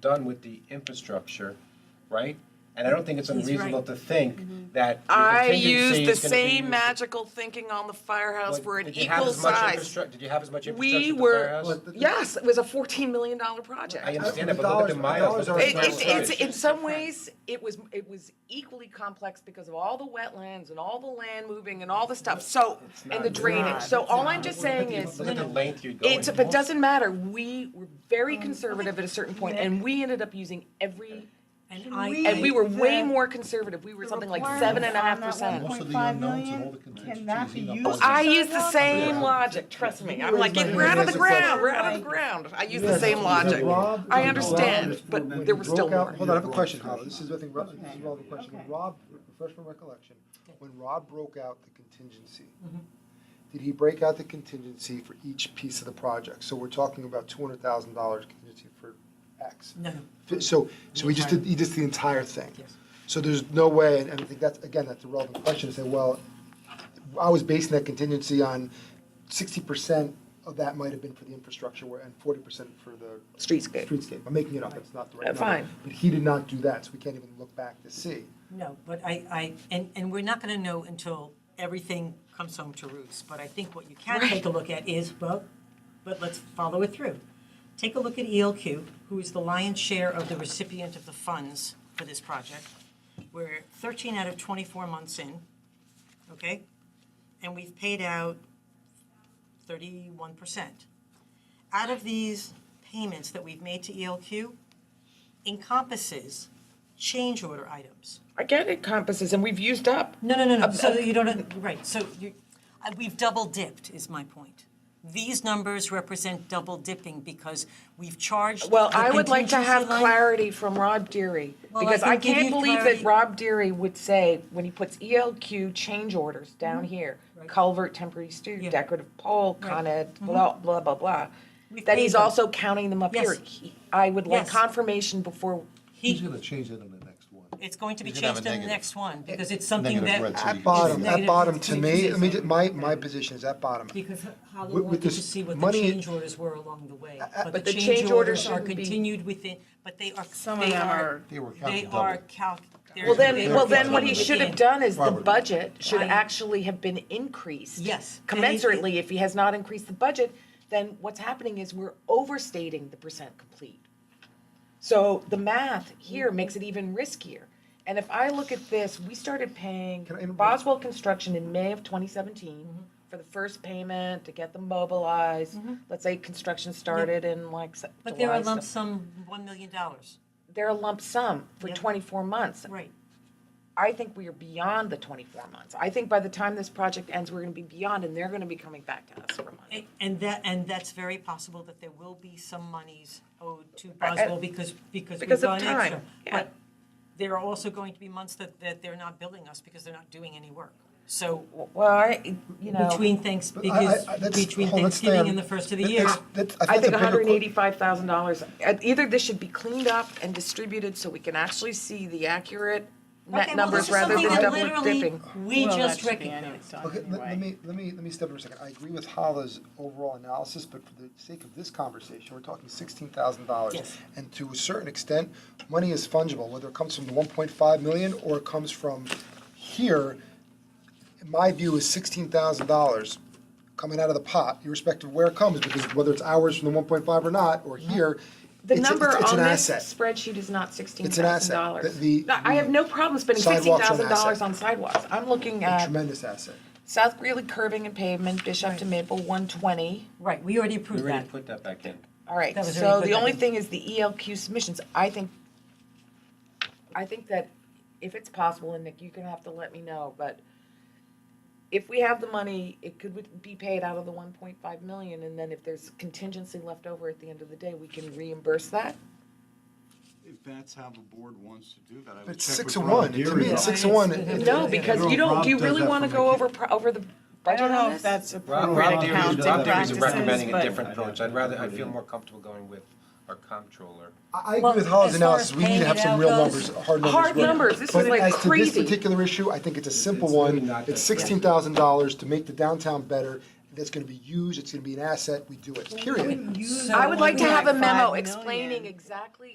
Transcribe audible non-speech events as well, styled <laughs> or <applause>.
done with the infrastructure, right? And I don't think it's He's unreasonable right. Mm-hmm. to think that your I contingency used the is gonna be- same magical thinking on the firehouse Well, for an did you have equal as much size. infrastruc- Did you have as much infrastructure We at the were- uh, firehouse? Well, the- Yes, it was a fourteen million dollar project. I It, understand the it, but look at the dollars- the miles. dollars are look at the it's, Right. it's, square footage. in some ways, it was, it was equally complex because of all the wetlands and all the land moving and all the stuff, so, and the drainage. So all I'm just saying is, Look at the length you're going. It's, but doesn't matter, we were very conservative at a certain point, and we ended up using every, And Can I, we- and we were way The- more conservative, we were something like seven and a half percent. Oh, Most of the unknowns and all the Can that contingencies be in our used? budget. I use the same logic, trust me, I'm like, we're out of the ground, we're out of the ground, I use the same logic. I understand, but there was still Broke out- more. Hold on, I have a question, Howard. This is, I think, Rob- this is Rob, a question. When Rob, refresh my recollection, when Rob broke out the contingency, Mm-hmm. did he break out the contingency for each piece of the project? So we're talking about two hundred thousand dollars contingency for X. no, no, Fi- So, so he just did, he just the entire thing? Yes. So there's no way, and and I think that's, again, that's a relevant question, to say, well, I was basing that contingency on sixty percent of that might have been for the infrastructure where- and forty percent for the Streetscape, streetscape. I'm making it up, it's not the right Uh, number. Eh. fine. But he did not do that, so we can't even look back to see. no, but I, I, and, and we're not gonna know until everything comes home to roost, but I think what you can take a look at is, well, but let's follow it through. Take a look at ELQ, who is the lion's share of the recipient of the funds for this project. We're thirteen out of twenty-four months in, okay? And we've paid out thirty-one percent. Out of these payments that we've made to ELQ encompasses change order items. I get it compasses, and we've used up. No, no, no, no, so you don't, <laughs> right, so you, I- we've double dipped is my point. These numbers represent double dipping because we've charged. Well, the I would like to have contingency line- clarity from Rob Deary, Well, I because I can give can't you believe that clarity. Rob Deary would say, when he puts ELQ change orders down here, culvert, temporary stu, Yeah. decorative pole, con ed, blah, blah, blah, blah, We've that paid he's them. also counting them up Yes. here. He- I would like Yes. confirmation before, He's He, gonna change that in the next one. it's going to be He's gonna have changed in a the negative- next one because it's something that. negative red, so you At can bottom, see at Negative bottom, to me, I mean, contingency. my, my position is at bottom. Because Holly With- with wanted to this see what the money- change orders were along the way, Uh, but the the change change orders orders are shouldn't be- continued within, but they are, Some of they them are, are- They were they counted are double. calc. they're- well they then, are well then what he calculated should have in. done is the Robert. budget should I- actually have been increased. Yes. And it- Commensurately, if he has not increased the budget, then what's happening is we're overstating the percent complete. So the math here makes it even riskier. And if I look at this, we started paying Can I interrupt? Boswell Construction in May of twenty seventeen Mm-hmm. for the first payment to get them mobilized. Let's say construction started in like se- But there July, are lump so- sum $1 million, They're a lump sum for Yep. twenty-four months. right. I think we are beyond the twenty-four months. I think by the time this project ends, we're gonna be beyond and they're gonna be coming back to us for money. A- And that, and that's very possible that there will be some monies owed to Boswell because, because we've Because of gone extra. time, yeah. But there are also going to be months that, that they're not billing us because they're not doing any work. So Well, I, you between thanks, But I- because, I- I- that's- between hold on, let's stay on- Thanksgiving and the first of the that- year. that's- that's- I that's a think bigger hundred and que- eighty-five thousand dollars, uh, either this should be cleaned up and distributed so we can actually see the accurate Okay, net well, this numbers is rather something than that double literally dipping. We Well, that just should be recognized. annexed Okay, let, on let anyway. me, let me, let me step in for a second. I agree with Hala's overall analysis, but for the sake of this conversation, we're talking sixteen thousand dollars. Yes. And to a certain extent, money is fungible, whether it comes from the one point five million or it comes from here. My view is sixteen thousand dollars coming out of the pot, irrespective of where it comes, because whether it's ours from the one point five or not, or here, The it's, a- number it's, it's on an this asset. spreadsheet is not sixteen It's an thousand asset. dollars. The- the- I have no problem spending sixteen Sidewalks are an thousand dollars asset. on sidewalks. I'm looking A at tremendous asset. South Greeley curving and pavement, Bishop to Maple, one twenty. Right, we already We approved already that. put that back in. All right, That was so already put the back only in. thing is the ELQ submissions. I think, I think that if it's possible, and Nick, you're gonna have to let me know, but if we have the money, it could be paid out of the one point five million, and then if there's contingency left over at the end of the day, we can reimburse that. If that's how the board wants to do that, I would check with Rob. But six of one, to me, Deary. it's six of Right. one. No, because you don't, do you really wanna go over, pro- over the I budget don't know on this? if that's Rob, appropriate Rob Deary, accounting Rob Deary's practices, recommending a but- different approach. I'd rather, I feel more comfortable going with our comptroller. I I agree Well, with Hollis' as far analysis, as we need paying to have it some out real goes- numbers, hard numbers. Hard right? numbers, this But is, like, as to crazy. this particular issue, I think it's a simple it's really one, not it's that bad. sixteen thousand dollars to make the downtown better, that's gonna be used, it's gonna be an asset, we do it, period. So I would like to have a Like memo five million. explaining exactly